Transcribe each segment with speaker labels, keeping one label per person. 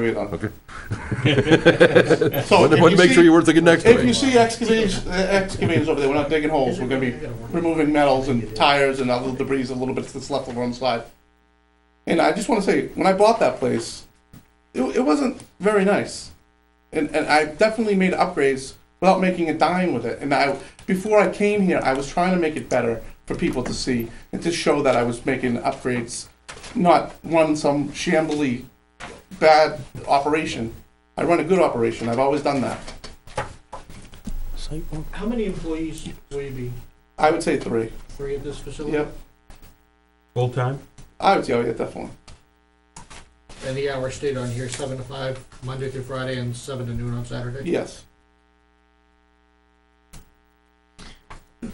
Speaker 1: Maybe not.
Speaker 2: Okay.
Speaker 1: So
Speaker 2: Wanted
Speaker 1: if
Speaker 2: wanted to make
Speaker 1: see-
Speaker 2: sure you weren't thinking next
Speaker 1: If you
Speaker 2: week.
Speaker 1: see excavators, uh, excavators over there, we're not digging holes, we're gonna be removing metals and tires and other debris, a little bit that's left over on the side. And I just wanna say, when I bought that place, it, it wasn't very nice. And, and I definitely made upgrades without making a dime with it. And I, before I came here, I was trying to make it better for people to see and to show that I was making upgrades, not run some shambly bad operation. I run a good operation, I've always done that.
Speaker 3: How many employees will you be,
Speaker 1: I would say three.
Speaker 3: three at this facility?
Speaker 1: Yep.
Speaker 4: Full time?
Speaker 1: I would say, oh, yeah, definitely.
Speaker 3: And the hours stayed on here, seven to five, Monday through Friday, and seven to noon on Saturday?
Speaker 1: Yes.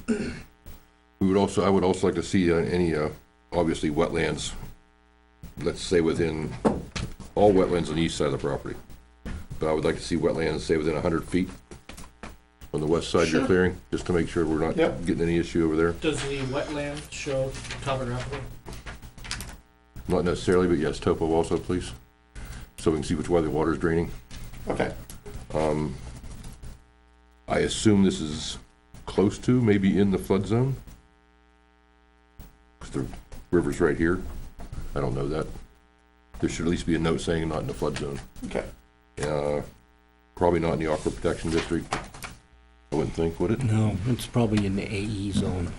Speaker 2: We would also, I would also like to see uh, any, uh, obviously wetlands, let's say within, all wetlands on the east side of the property. But I would like to see wetlands, say within hundred feet on the west side you're
Speaker 1: Sure.
Speaker 2: clearing, just to make sure we're not
Speaker 1: Yep.
Speaker 2: getting any issue over there.
Speaker 3: Does the wetland show topographical?
Speaker 2: Not necessarily, but yes, topo also, please. So we can see which way the water's draining.
Speaker 1: Okay.
Speaker 2: I assume this is close to, maybe in the flood zone? Because the river's right here. I don't know that. There should at least be a note saying not in the flood zone.
Speaker 1: Okay.
Speaker 2: Uh, Probably not in the Aqua Protection District. I wouldn't think, would it?
Speaker 5: No, it's probably in the AE zone.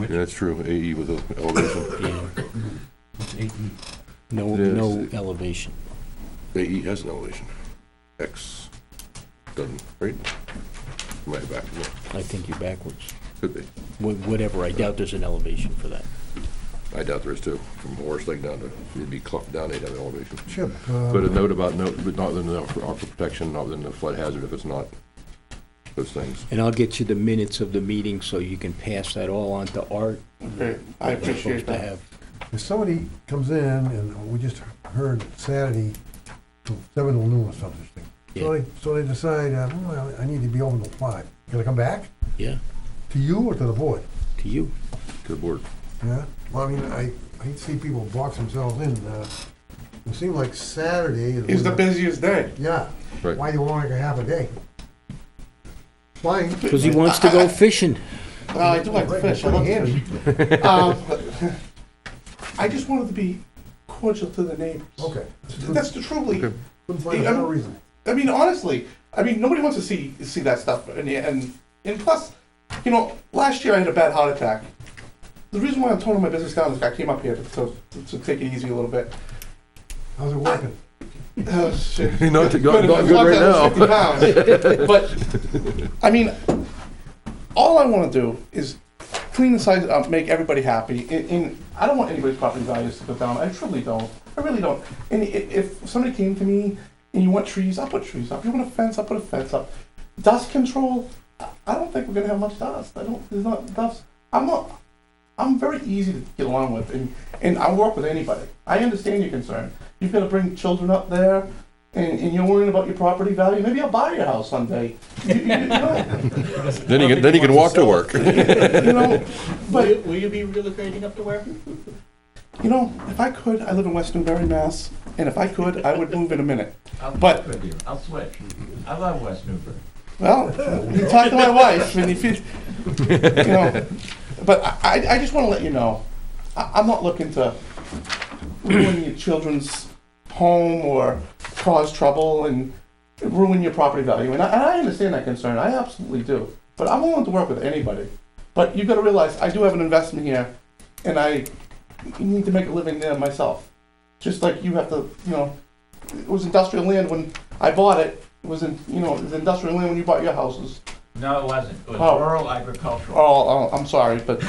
Speaker 2: Yeah, that's true, AE with the elevation.
Speaker 5: Yeah. No,
Speaker 2: It is.
Speaker 5: no elevation.
Speaker 2: AE E has an elevation. X doesn't, right? Might back, no,
Speaker 5: I think you're backwards.
Speaker 2: could be.
Speaker 5: Wh- Whatever, I doubt there's an elevation for that.
Speaker 2: I doubt there is too. From Horace Lake down to, it'd be Clough down, they'd have an elevation.
Speaker 6: Jim,
Speaker 2: But a
Speaker 6: uh,
Speaker 2: note about, no, but not within the aquifer protection, not within the flood hazard if it's not those things.
Speaker 5: And I'll get you the minutes of the meeting so you can pass that all on to Art.
Speaker 1: Great. I
Speaker 5: They're supposed
Speaker 1: appreciate
Speaker 5: to
Speaker 1: that.
Speaker 5: have
Speaker 6: if somebody comes in, and we just heard Saturday till seven till noon or something, so
Speaker 5: Yeah.
Speaker 6: they, so they decide, uh, "Hmm, I- I need to be open till five, can I come back?
Speaker 5: Yeah,
Speaker 6: To you or to the board?
Speaker 5: to you.
Speaker 2: Good board.
Speaker 6: Yeah, well, I mean, I, I see people box themselves in, uh, it seemed like Saturday.
Speaker 1: It's
Speaker 6: was
Speaker 1: the busiest day.
Speaker 6: Yeah,
Speaker 2: Right.
Speaker 6: why do you want like a half a day? Fine.
Speaker 5: Because he wants to go fishing.
Speaker 1: Uh, I do like to fish. I love to fish. Um, I just wanted to be cordial to the neighbors.
Speaker 6: Okay.
Speaker 1: That's the truly.
Speaker 2: Okay.
Speaker 6: Couldn't find another reason.
Speaker 1: I mean, honestly, I mean, nobody wants to see see that stuff. And and and plus, you know, last year I had a bad heart attack. The reason why I'm toning my business down is I came up here to, to, to take it easy a little bit.
Speaker 6: How's it working?
Speaker 1: Oh, shit.
Speaker 2: You're not, not
Speaker 1: But if I
Speaker 2: good
Speaker 1: thought
Speaker 2: right
Speaker 1: that was
Speaker 2: now.
Speaker 1: 50 pounds- But, I mean, all I want to do is clean the site up, make everybody happy. And, and I don't want anybody's property values to go down. I truly don't. I really don't. And i- if somebody came to me and you want trees, I'll put trees up. You want a fence, I'll put a fence up. Dust control, I- I don't think we're going to have much dust. I don't, there's not dust. I'm not, I'm very easy to get along with, and, and I work with anybody. I understand your concern. You've got to bring children up there, and, and you're worrying about your property value. Maybe I'll buy your house someday. You, you- you know,
Speaker 2: Then he can, then he can walk to work.
Speaker 1: you know,
Speaker 3: Will
Speaker 1: but
Speaker 3: you- will you be relocating up to where?
Speaker 1: you know, if I could, I live in West Newbury, Mass, and if I could, I would move in a minute.
Speaker 7: I'll
Speaker 1: But- Mm-hmm.
Speaker 7: switch with you. I'll switch. I love West Newbury.
Speaker 1: Well, you talk to my wife, and if you, you know, but I, I- I just want to let you know, I, I'm not looking to ruin your children's home or cause trouble and ruin your property value. And I, and I understand that concern, I absolutely do. But I'm willing to work with anybody. But you've got to realize, I do have an investment here, and I need to make a living there myself. Just like you have to, you know, it was industrial land when I bought it, it was in, you know, it was industrial land when you bought your houses.
Speaker 7: No, it wasn't. It was
Speaker 1: Oh.
Speaker 7: rural agricultural.
Speaker 1: Oh, oh, I'm sorry, but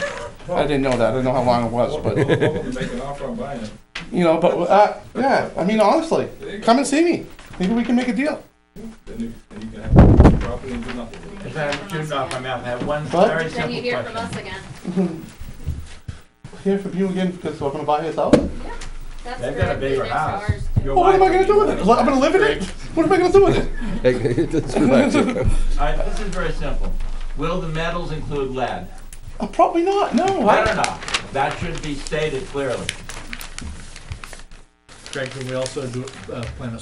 Speaker 1: I didn't know that. I didn't know how long it was, but
Speaker 8: Make an offer, I'm buying it.
Speaker 1: you know, but uh, yeah. I mean, honestly, come and see me. Maybe we can make a deal.
Speaker 8: Then you, then you can have the property and do nothing with it.
Speaker 7: If I'm shooting off my mouth, I have one
Speaker 1: What?
Speaker 7: very
Speaker 9: Then
Speaker 7: simple
Speaker 9: you hear from us
Speaker 7: question.
Speaker 9: again.
Speaker 1: Hear from you again because we're gonna buy his house.
Speaker 9: That's
Speaker 7: They've got a
Speaker 9: correct.
Speaker 7: bigger
Speaker 9: Next
Speaker 7: house.
Speaker 9: hours.
Speaker 7: Your
Speaker 1: Well, what am I
Speaker 7: wife
Speaker 1: gonna
Speaker 7: would be
Speaker 1: do with it? I'm gonna live in it. What am I gonna do with it?
Speaker 2: That's relaxing.
Speaker 7: All right, this is very simple. Will the metals include lead?
Speaker 1: Uh, probably not. No.
Speaker 7: I don't
Speaker 1: I,
Speaker 7: know. That should be stated clearly.
Speaker 3: Greg, can we also do, uh, plan a